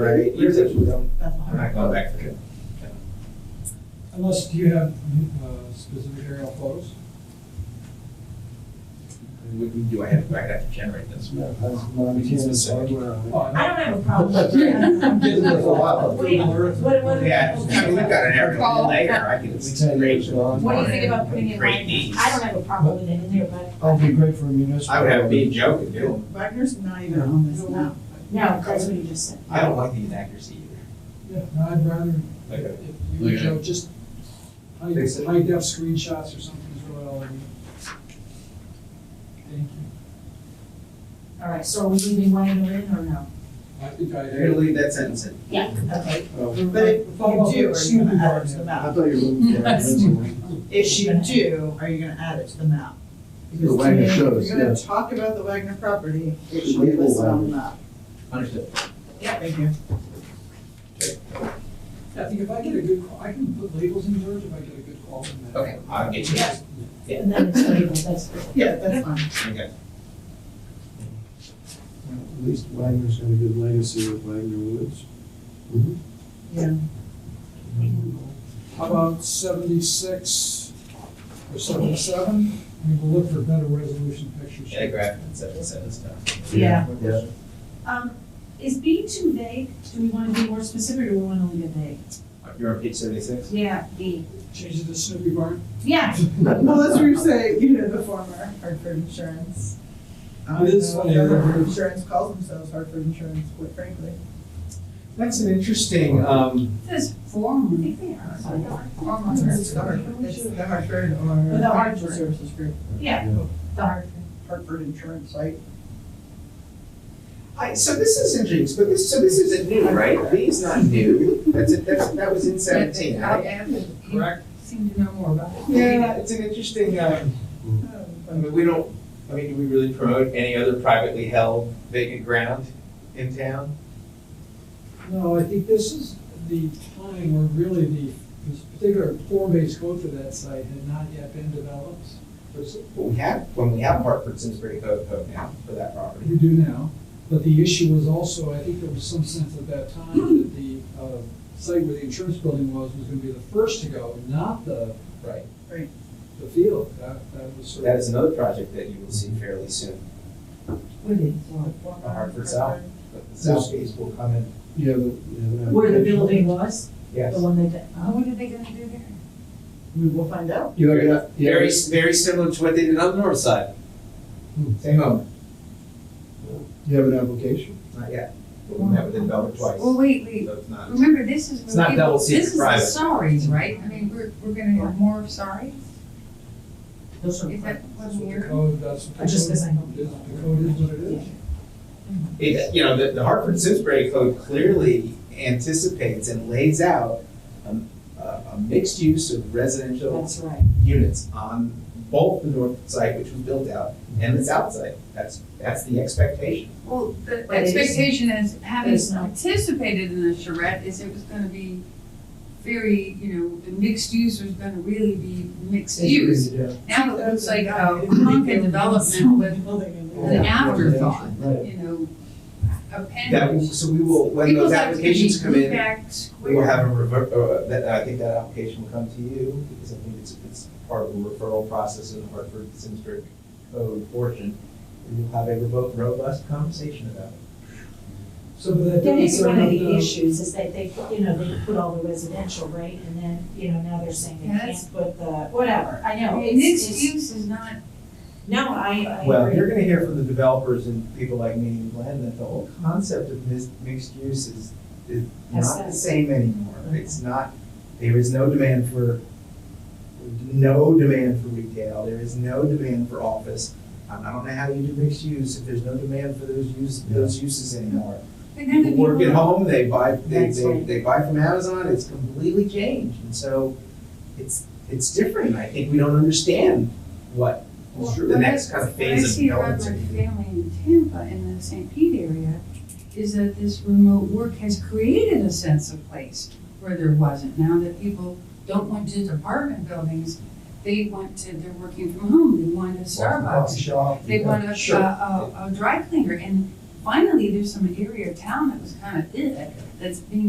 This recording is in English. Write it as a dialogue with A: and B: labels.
A: Right.
B: Years that we don't-
C: That's all
B: I'm not
C: right.
B: going back for it.
D: Unless, do you have uh, specific aerial photos?
B: We, we do, I have, I have to generate this.
A: Yeah, that's not
E: We can specific.
D: Oh, I
C: I don't have a problem with that.
A: I'm getting this a lot.
C: Wait, what, what?
B: Yeah, I mean, we've got an aerial
C: Recall.
B: later, I can.
A: It's ten years long.
C: What do you think about putting it in
B: Great
C: Wagner's?
B: needs.
C: I don't have a problem with it in there, but
A: I'll be great for a municipal.
B: I would have a big joke and do
F: Wagner's not even on this map.
C: no, that's what you just said.
B: I don't like the inaccuracy either.
D: Yeah, no, I'd rather,
B: Like, uh,
D: if you
E: Yeah.
D: show just high
B: Fix it.
D: high def screenshots or something is really all I need. Thank you.
C: All right, so are we leaving Wagner in or no?
D: I think I.
B: You're gonna leave that sentence in.
C: Yeah, okay.
A: Oh,
F: But if you do, are you gonna add it to the
A: I
F: map?
A: thought you were looking for a municipal.
F: If you do, are you gonna add it to the map? Because
A: The Wagner
F: to me,
A: shows,
F: If you're gonna
A: yes.
F: talk about the Wagner property, it
A: Should
F: should be
A: label
F: listed on
A: Wagner.
F: the map.
B: Understood.
F: Yeah. Thank you.
D: I think if I get a good call, I can put labels in there if I get a good call from that.
B: Okay, I'll get you that.
C: And then it's labeled, that's good.
F: Yeah, that's fine.
B: Okay.
A: At least Wagner's got a good legacy with Wagner Woods.
F: Yeah.
D: How about seventy-six or seventy-seven? We will look for better resolution pictures.
B: Yeah, graphic and seven, seven stuff.
C: Yeah.
A: Yeah.
C: Um, is B too vague? Do we wanna be more specific or we wanna leave it vague?
B: You're on page seventy-six?
C: Yeah, B.
D: Change it to Snoopy Barn.
C: Yeah,
F: Well, that's where you say, you know, the former Hartford Insurance. I don't
D: It is
F: know what
D: funny,
F: the
D: yeah.
F: Hartford Insurance calls themselves Hartford Insurance, quite frankly.
B: That's an interesting, um,
C: this form, I think they are. Form
F: It's the Hartford, it's the Hartford or.
C: The Hartford.
F: Financial Services Group,
C: Yeah, the hard.
F: Hartford Insurance site.
B: I, so this is interesting, but this, so this isn't new, right? B's not new, that's, it. that's, that was in seventeen,
C: I
B: right?
C: am, you
B: Correct?
C: seem to know more about it.
B: Yeah, it's an interesting, uh, I
G: Oh.
B: mean, we don't, I mean, do we really promote any other privately held vacant ground in town?
D: No, I think this is the time where really the, this particular form-based code for that site had not yet been developed.
B: There's- Well, we have, when we have Hartford Simsbury Code Code now for that property.
D: We do now, but the issue was also, I think there was some sense at that time that the, uh, site where the insurance building was, was gonna be the first to go, not the,
B: Right.
D: the field. That, that was sort
B: That
D: of.
B: is another project that you will see fairly soon, the Hartford South. but The South East will come in.
A: Yeah, the, yeah. that-
C: Where the building was,
B: Yes.
C: the one that, oh,
F: are they gonna do there? We will find out.
A: You know, yeah, yeah.
B: Very, very similar to what they did on the north side. Hmm, Same owner.
A: You have an application?
B: Not yet. But we met with the developer twice.
G: Well, wait, wait,
B: So it's not-
G: remember, this is.
B: It's not
G: when people-
B: double secret private.
G: This is the sorries, right? I mean, we're, we're gonna have more sorries?
C: those are.
G: Is that
D: That's
G: what
D: what the
G: we're?
D: code, that's what the
C: I just
D: code is.
C: guess I don't-
D: The code is what it is.
B: It, you know, the, the Hartford Simsbury Code clearly anticipates and lays out um, a, a mixed use of residential
C: That's right.
B: units on both the north side, which was built out, and the south side. That's, that's the expectation.
G: Well, the
C: But it is-
G: expectation is, having
C: it's not.
G: participated in the charrette, is it was gonna be very, you know, the mixed use was gonna really be mixed use. Now it looks like a Ponca development with an afterthought, you know,
B: That, will-
G: appendage.
B: so we will, when those
G: People's
B: applications come in,
G: Back
B: we will
G: square.
B: have a revert, uh, that, I think that application will come to you, because I think it's, it's part of the referral process in the Hartford Simsbury Code portion. And you'll have a revo- robust conversation about it.
D: So but that
C: That
D: doesn't
C: is
D: sort
C: one
D: of,
C: of the
D: uh,
C: issues, is that they, put- you know, they put all the residential, right, and then, you know, now they're saying they
G: Yes.
C: can't put the, whatever, I know. it's-
G: Mixed
C: it's-
G: use is not
C: No, I, I
B: Well, you're
C: agree.
B: gonna hear from the developers and people like me and Glenn that the whole concept of mis- mixed use is, is not the
C: Aesthetic.
B: same anymore. It's not, there is no demand for, no demand for retail, there is no demand for office. I I don't know how you do mixed use if there's no demand for those use, those uses anymore.
G: But then the
B: People work at
G: people,
B: home, they buy, they,
C: That's
B: they,
C: right.
B: they buy from Amazon, it's completely changed. And so it's, it's different. I think we don't understand what
G: Well,
B: the next kind of
G: what I
B: phase of
G: see around
B: development.
G: my family in Tampa, in the St. Pete area, is that this remote work has created a sense of place where there wasn't. Now that people don't want just apartment buildings, they want to, they're working from home, they want a Starbucks. They want a, a,
B: Sure.
G: a, a dry cleaner, and finally, there's some area of town that was kind of it, that's being